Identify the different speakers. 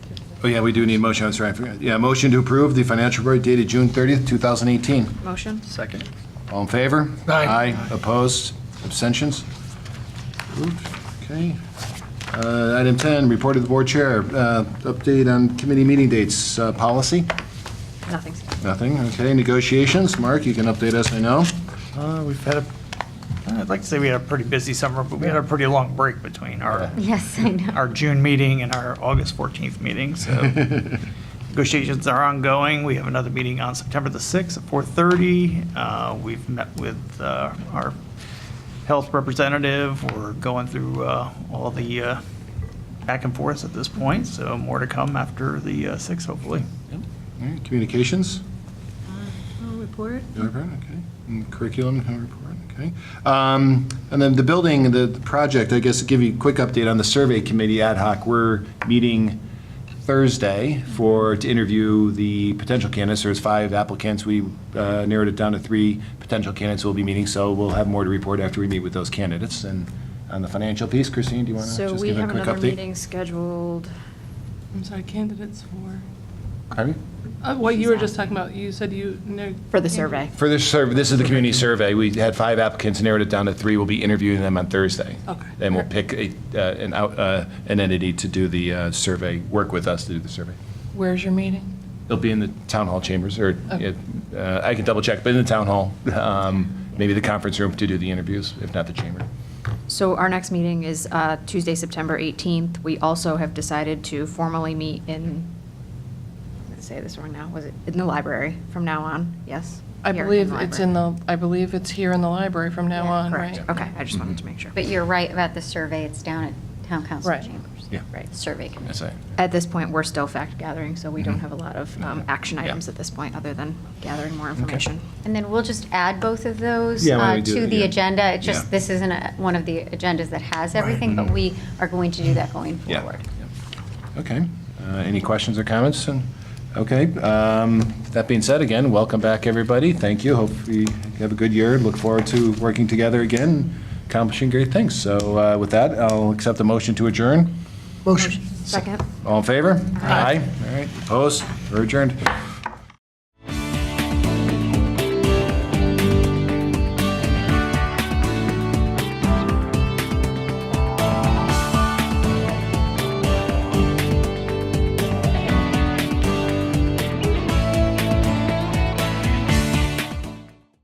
Speaker 1: Oh, yeah, we do need a motion, I'm sorry, I forgot. Yeah, motion to approve the financial report dated June 30th, 2018.
Speaker 2: Motion?
Speaker 3: Second.
Speaker 1: All in favor?
Speaker 4: Aye.
Speaker 1: Opposed? Abstentions? Approved. Okay. Uh, Item 10, report of the board chair. Uh, Update on committee meeting dates. Uh, Policy?
Speaker 2: Nothing.
Speaker 1: Nothing. Okay, negotiations. Mark, you can update us, I know.
Speaker 3: Uh, We've had a, I'd Uh, like to say we had a pretty busy summer, but we had a pretty long break between our,
Speaker 2: Yes, I know.
Speaker 3: our June meeting and our August 14th meeting, so negotiations are ongoing. We have another meeting on September the 6th at 4:30. Uh, We've met with uh, our health representative. We're going through uh, all the uh, back and forth at this point, so more to come after the uh, 6th, hopefully.
Speaker 1: All right, Communications?
Speaker 2: Report?
Speaker 1: All right, Okay. And Curriculum uh, report, okay. Um, And then the building, the the project, I guess, to give you a quick update on the survey committee ad hoc, we're meeting Thursday for, to interview the potential candidates. There's five applicants. We uh, narrowed it down to three potential candidates we'll be meeting, so we'll have more to report after we meet with those candidates. And on the financial piece, Christine, do you want to
Speaker 2: So
Speaker 1: just
Speaker 2: we
Speaker 1: give a
Speaker 2: have
Speaker 1: quick update?
Speaker 2: another meeting scheduled.
Speaker 4: I'm sorry, candidates for,
Speaker 1: Pardon me?
Speaker 4: uh, what you were just talking about, you said you. no-
Speaker 2: For the survey.
Speaker 1: For this survey, this is the community survey. We had five applicants, narrowed it down to three. We'll be interviewing them on Thursday.
Speaker 4: Okay.
Speaker 1: And we'll pick a, uh, an out, uh, an entity to do the uh, survey, work with us to do the survey.
Speaker 4: Where's your meeting?
Speaker 1: It'll be in the town hall chambers, or,
Speaker 4: Okay.
Speaker 1: uh, I can double check, but in the town hall, um, maybe the conference room to do the interviews, if not the chamber.
Speaker 2: So our next meeting is uh, Tuesday, September 18th. We also have decided to formally meet in, I'm going to say this wrong now, was it, in the library from now on? Yes?
Speaker 4: I
Speaker 2: Here,
Speaker 4: believe it's in
Speaker 2: library.
Speaker 4: the, I believe it's here in the library from now
Speaker 5: Yeah,
Speaker 4: on, right?
Speaker 2: Correct, okay, I just wanted to make sure.
Speaker 5: But you're right about the survey, it's down at town council
Speaker 4: Right.
Speaker 5: chambers.
Speaker 1: Yeah.
Speaker 5: Right, survey committee.
Speaker 1: That's it.
Speaker 2: At this point, we're still fact gathering, so we don't have a lot of um, action
Speaker 1: Yeah.
Speaker 2: items at this point, other than gathering more information.
Speaker 5: And then we'll just add both of those
Speaker 1: Yeah, why don't we
Speaker 5: uh,
Speaker 1: do
Speaker 5: to
Speaker 1: that,
Speaker 5: the
Speaker 1: yeah.
Speaker 5: agenda. It's
Speaker 1: Yeah. Mm-hmm.
Speaker 5: just, this isn't a- one of the agendas that has everything, but we are going to do that going
Speaker 1: Yeah.
Speaker 5: forward.
Speaker 1: Yeah. Okay. Uh, Any questions or comments? And- Okay. um, That being said, again, welcome back, everybody. Thank you. Hope you have a good year. Look forward to working together again, accomplishing great things. So uh, with that, I'll accept a motion to adjourn.
Speaker 2: Second?
Speaker 1: All in favor? Aye. All right. Opposed? We're adjourned.